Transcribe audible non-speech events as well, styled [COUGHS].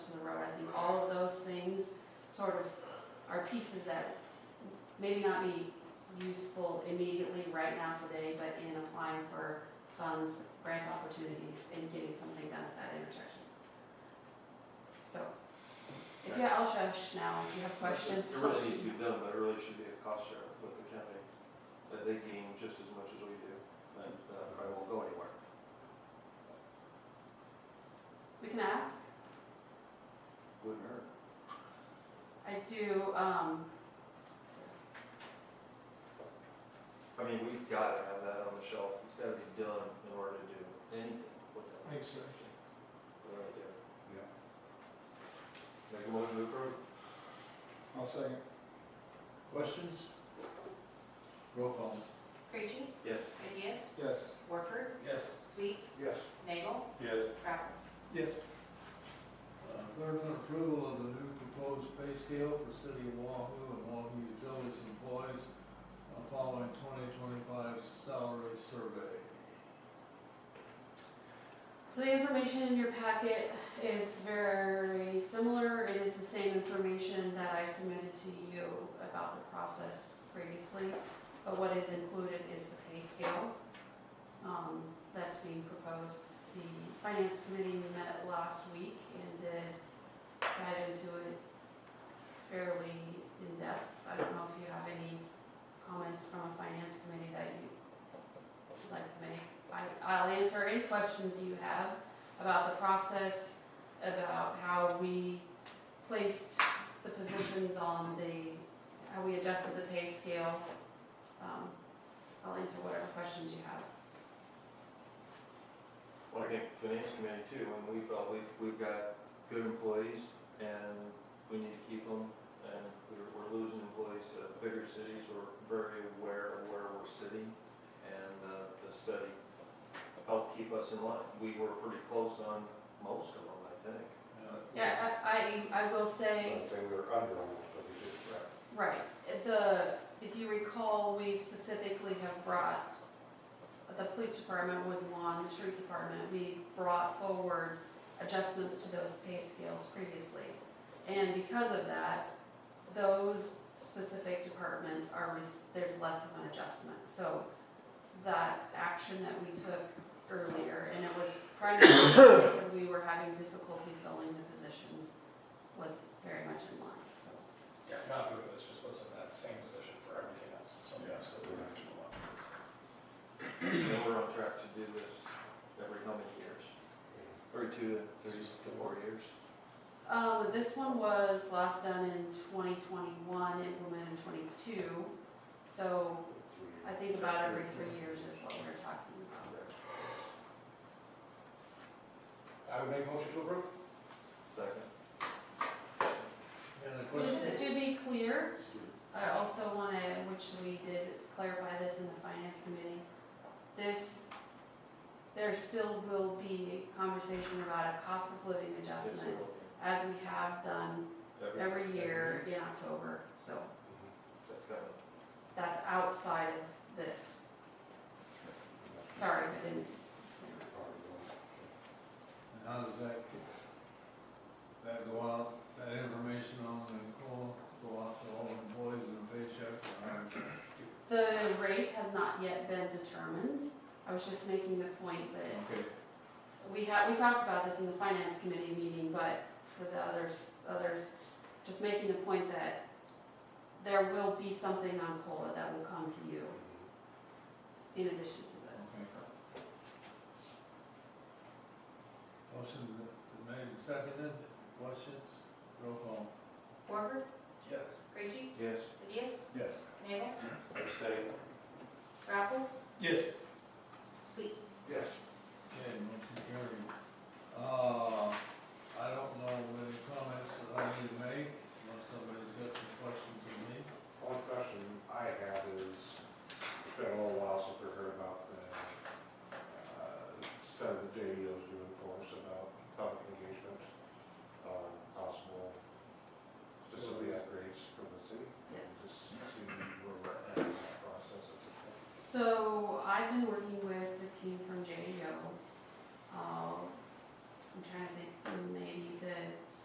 Road. I think all of those things sort of are pieces that maybe not be useful immediately right now today, but in applying for funds, grant opportunities, and getting something done at that intersection. So, if you, I'll shush now, if you have questions. It really needs to be done, but it really should be a cost share with the county, that they gain just as much as we do, and uh, probably won't go anywhere. We can ask. Wouldn't hurt. I do, um, I mean, we've got to have that on the shelf, it's got to be done in order to do anything with that. Thanks, sir. We really do. Yeah. Make a motion to approve? I'll second. Questions? Roll call. Creachy, Yes. Ideas, Yes. Warford, Yes. Sweet, Yes. Nagel, Yes. Crowell. Yes. Uh, Third one, approval of the new proposed pay scale for City of Wahoo and Wahoo Utilities employees uh, following 2025 salary survey. so the information in your packet is very similar. It is the same information that I submitted to you about the process previously. But what is included is the pay scale, um, that's being proposed. The finance committee met last week and did dive into it fairly in depth. I don't know if you have any comments from a finance committee that you would like to make. I, I'll answer any questions you have about the process, about how we placed the positions on the, how we adjusted the pay scale. Um, I'll answer whatever questions you have. Well, I think finance committee too, when we felt we, we've got good employees and we need to keep them. And we're, we're losing employees to bigger cities, we're very aware of where we're sitting. And, uh, the study helped keep us in line. We were pretty close on most of them, I think. Yeah, I, I I will say, I'd say we were under almost, but we did. Right, the, if you recall, we specifically have brought, the police department was one, the street department, we brought forward adjustments to those pay scales previously. And because of that, those specific departments are, rec- there's less of an adjustment. So that action that we took earlier, and it was primarily [COUGHS] because we were having difficulty filling the positions, was very much in line, so. Yeah, not doing this just puts them in that same position for everything else, so yeah, so we're gonna keep them up. And we're on track to do this every how many years? Every two to three to four years. Um, this one was last done in 2021, implemented in '22, so I think about every three years is what we're talking about. I would make motion to approve? Second. And the Just question, to be clear, I also want to, which we did clarify this in the finance committee, this, there still will be conversation about a cost of living adjustment as we have done every year in October, so That's kind of that's outside of this. Sorry, I didn't and how does that, that go out, that information on the call, go out to all employees and paycheck? or- The rate has not yet been determined. I was just making the point that Okay, we had, we talked about this in the finance committee meeting, but for the others, others, just making the point that there will be something on COLA that will come to you in addition to this. Okay. motion to- to made and seconded, questions, roll call. Warford, Yes. Creachy, Yes, Ideas, Yes. Nagel, abstain. Crowell, Yes. Sweet. Yes. Okay, motion carried. E Uh, Uh,